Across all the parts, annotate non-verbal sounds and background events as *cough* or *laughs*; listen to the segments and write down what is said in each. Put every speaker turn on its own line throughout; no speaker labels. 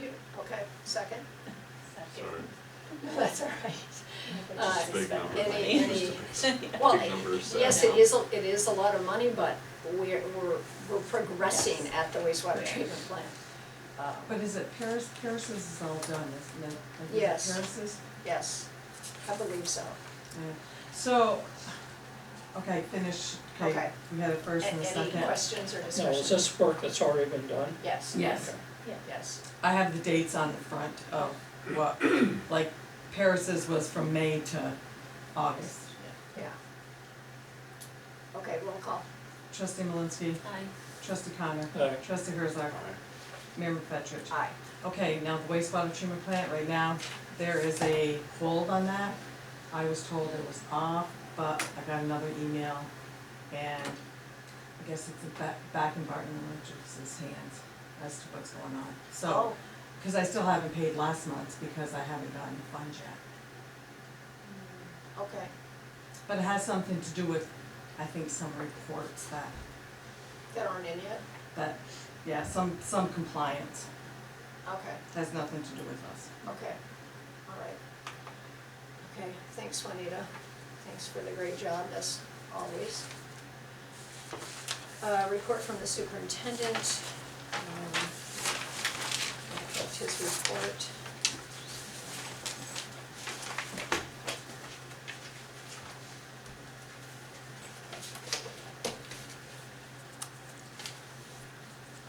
You, okay, second?
Sorry.
*laughs* That's all right. Uh,
Big number.
any- any-
Just a
*laughs*
big-
Well,
big number is
yes,
sad.
it is, a- it is a lot of money, but we're, we're, we're progressing
Yes.
at the wastewater treatment plant. Um,
But is it Paris, Paris's is all done, isn't it? Is it
Yes.
Paris's?
Yes, I believe so.
Yeah. So, okay, finish, okay,
Okay.
we had a first and a
A-
second.
Any questions or
No,
discussion?
is this work that's already been done?
Yes.
Yes,
Yes,
I have the dates on the front of what, like Paris's was from May to August.
yeah. Okay, roll call.
Trustee Malinsky,
Aye.
trustee Connor,
Aye.
trustee Herzog, Mayor McFetrich.
Aye.
Okay, now the wastewater treatment plant, right now, there is a hold on that. I was told it was off, but I got another email, and I guess it's back, back in Barton Electric's hands as to what's going on. So,
Oh,
because I still haven't paid last month's because I haven't gotten the funds yet.
okay,
But it has something to do with, I think, some reports that,
that aren't in yet?
that, yeah, some, some compliance,
Okay,
has nothing to do with us.
okay, all right. Okay, thanks Juanita, thanks for the great job as always. Uh, report from the superintendent. Um, That's his report.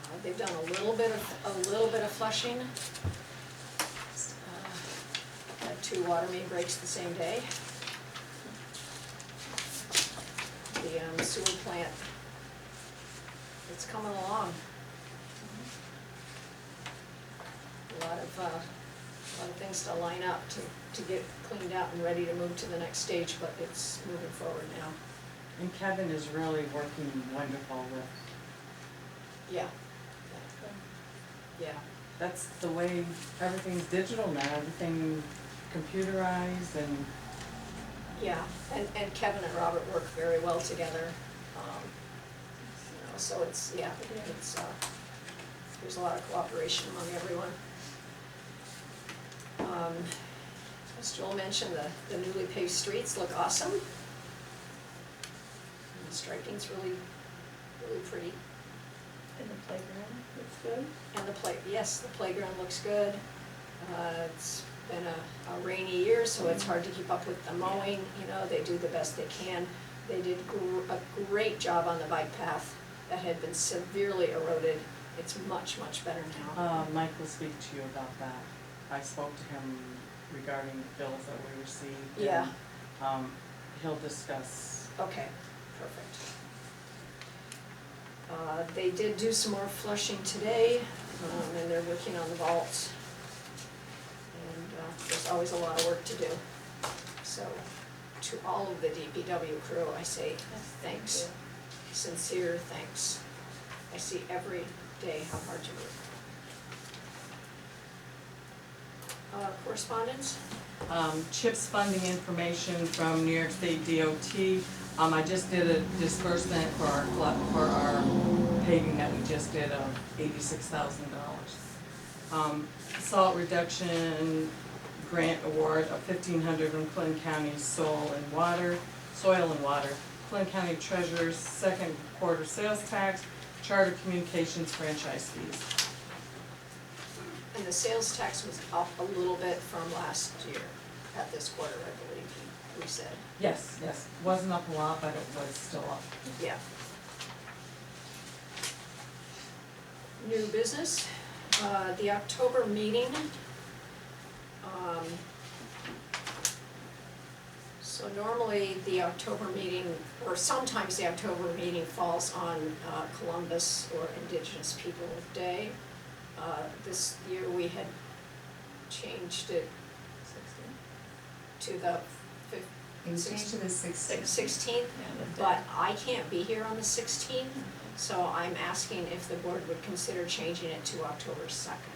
Uh, They've done a little bit of, a little bit of flushing. Uh, Had two water main breaks the same day. The um, sewer plant, it's coming along. A lot of, uh, a lot of things to line up to, to get cleaned out and ready to move to the next stage, but it's moving forward now.
And Kevin is really working wonderful with
Yeah. Yeah.
that's the way everything's digital now, everything computerized and
Yeah, and, and Kevin and Robert work very well together. um, You know, so it's, yeah, it's, uh, there's a lot of cooperation among everyone. Um, As Joel mentioned, the, the newly paved streets look awesome. And the striping's really, really pretty.
In the playground, it's good.
And the play, yes, the playground looks good. Uh, It's been a a rainy year, so it's hard to keep up with the mowing, you know, they do the best they can. They did gr- a great job on the bike path that had been severely eroded. It's much, much better now.
uh Mike will speak to you about that. I spoke to him regarding the bills that we received and
Yeah.
um he'll discuss
Okay, perfect. Uh, They did do some more flushing today, um, and they're working on the vault. And uh, there's always a lot of work to do. So to all of the DPW crew, I say thanks, sincere thanks. I see every day how hard you work. Uh, Correspondence?
um CHIPS funding information from New York State DOT. Um I just did a disbursement for our glut- for our paving that we just did of eighty-six thousand dollars. Um salt reduction grant award of fifteen hundred from Clinton County Soil and Water, Soil and Water. Clinton County Treasurer's second quarter sales tax, Charter Communications franchise fees.
And the sales tax was up a little bit from last year at this quarter, I believe we said.
Yes, yes, wasn't up a lot, but it was still up.
Yeah. New business, uh, the October meeting. um, So normally the October meeting, or sometimes the October meeting falls on uh, Columbus or Indigenous People Day. Uh, This year we had changed it to the fif-
It was changed to the
six-
sixth.
16th, but I can't be here on the sixteenth, so I'm asking if the board would consider changing it to October second.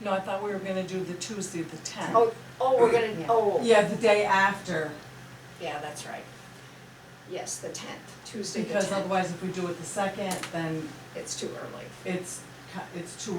No, I thought we were gonna do the Tuesday, the tenth.
Oh, oh, we're gonna,
Yeah.
oh,
Yeah, the day after,
yeah, that's right. Yes, the tenth, Tuesday the
because
tenth,
otherwise if we do it the second, then
it's too early.
it's, ki- it's too early